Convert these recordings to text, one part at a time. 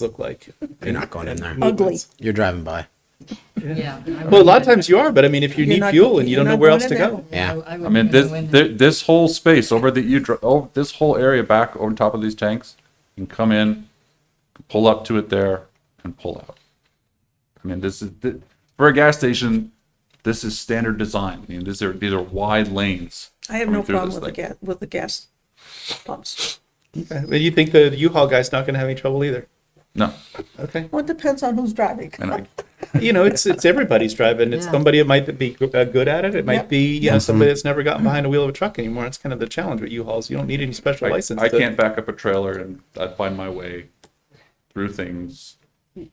look like. You're not going in there. Ugly. You're driving by. Yeah. Well, a lot of times you are, but I mean, if you need fuel and you don't know where else to go, Yeah. I I mean, this thi- this whole space over that you dr- oh, this whole area back on top of these tanks, you can come in, pull up to it there, and pull out. I mean, this is th- for a gas station. This is standard design. I mean, these are these are wide lanes. I have coming no through problem this with the thing. gas, with the gas pumps. But you think the U-Haul guy's not going to have any trouble either. No, Okay, Well, it depends on who's driving. and I, you know, it's it's everybody's driving. It's Yeah. somebody that might be g- uh, good at it. It might Yep. be you know Mm-hmm. somebody that's never gotten behind a wheel of a truck anymore. That's kind of the challenge with U-Hauls. You don't need any special I, license. I to- can't back up a trailer, and I find my way through things.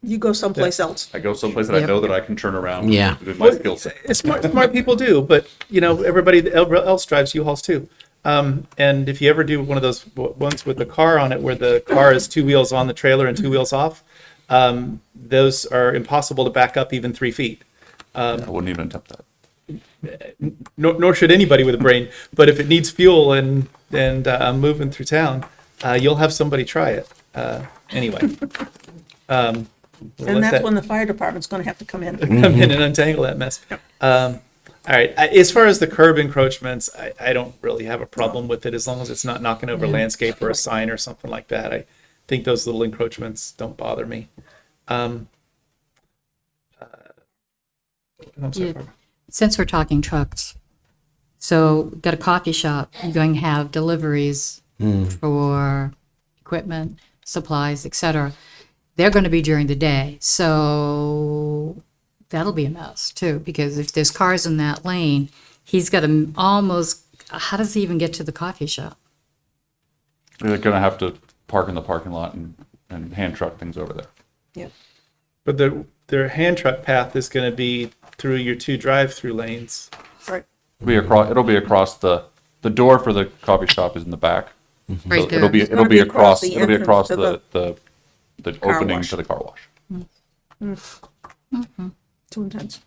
You go someplace else. I go someplace that I Yep. know that I can turn around. Yeah. with my Well, skill set. it's smart, smart people do, but you know everybody else drives U-Hauls too. Um, and if you ever do one of those w- ones with the car on it, where the car is two wheels on the trailer and two wheels off, um, those are impossible to back up even three feet. I wouldn't even attempt that. nor, nor should anybody with a brain. But if it needs fuel and and uh, moving through town, uh, you'll have somebody try it. Uh, anyway, um, we'll let And that's that when the fire department's gonna have to come Mm-hmm. in. come in and untangle that mess. Um, all right. I, as far as the curb encroachments, I, I don't really have a problem with it as long as it's not knocking over landscape or a sign or something like that. I think those little encroachments don't bother me. Um, uh, I'm sorry, Yeah. Barbara. Since we're talking trucks, so got a coffee shop, you're going to have deliveries for equipment, supplies, et cetera. They're going to be during the day, so that'll be a mess too, because if there's cars in that lane, he's got to almost, how does he even get to the coffee shop? They're gonna have to park in the parking lot and, and hand truck things over there. Yep. But the their hand truck path is going to be through your two drive-through lanes. Right. Be across. It'll be across the the door for the coffee shop is in the back. Right So it'll be there. it'll gonna be across. the It'll be entrance across to the the the car opening wash. to the car wash. Too intense.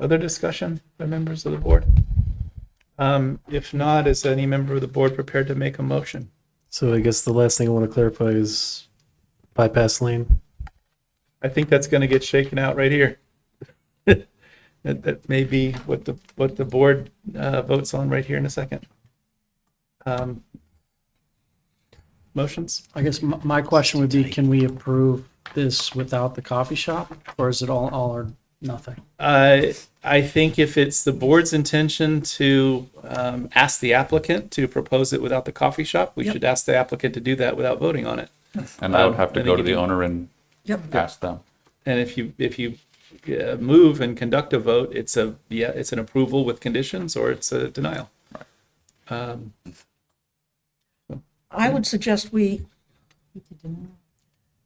Other discussion by members of the board? Um, if not, is any member of the board prepared to make a motion? So I guess the last thing I want to clarify is bypass lane. I think that's going to get shaken out right here. That, that may be what the, what the board, uh, votes on right here in a second. Um, Motions? I guess my, my question would be, can we approve this without the coffee shop? Or is it all, all or nothing? Uh, I think if it's the board's intention to um, ask the applicant to propose it without the coffee shop, we should ask the applicant to do that without voting on it. And I would Um, have I to think go to it the did. owner and Yep. ask them. And if you if you uh, move and conduct a vote, it's a yeah, it's an approval with conditions or it's a denial. Um, I would suggest we,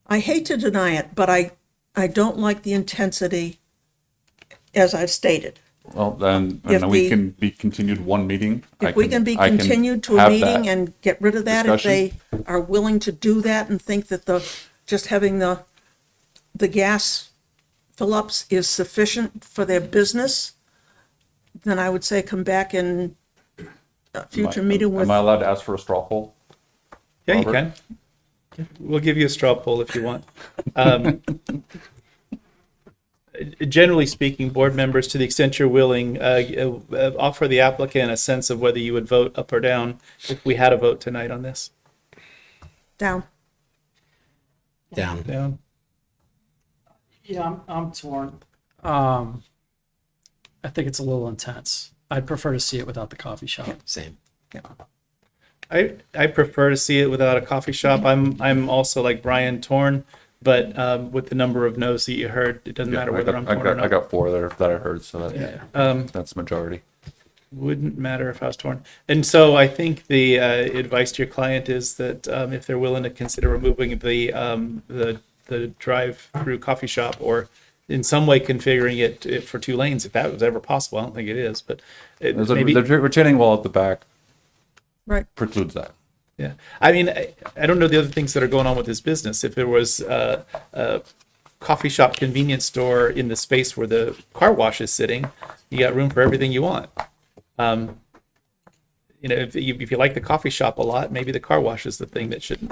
I hate to deny it, but I, I don't like the intensity as I've stated. Well, then If and then we the- can be continued one meeting. I If we can be I continued to a have meeting that. and get rid of that, if they discussion. are willing to do that and think that the, just having the, the gas fill-ups is sufficient for their business, then I would say come back in a future Am I- meeting with, Am I allowed to ask for a straw poll? yeah, you Robert? can. We'll give you a straw poll if you want. Um, generally speaking, board members, to the extent you're willing, uh, uh, offer the applicant a sense of whether you would vote up or down if we had a vote tonight on this. down. Down. Down. Yeah, I'm, I'm torn. Um, I think it's a little intense. I'd prefer to see it without the coffee shop. Same. I, I prefer to see it without a coffee shop. I'm I'm also like Brian torn, but um, with the number of no's that you heard, it doesn't Yeah, matter I whether got- I'm I torn got- or not. I got four that I- that I heard, so that Um, that's majority. wouldn't matter if I was torn. And so I think the uh, advice to your client is that um, if they're willing to consider removing the um, the the drive-through coffee shop or in some way configuring it to- for two lanes, if that was ever possible, I don't think it is, but it, There's a maybe. the retaining wall at the back Right. precludes that. Yeah, I mean, I, I don't know the other things that are going on with this business. If there was a, a coffee shop, convenience store in the space where the car wash is sitting, you got room for everything you want. Um, you know, if you, if you like the coffee shop a lot, maybe the car wash is the thing that shouldn't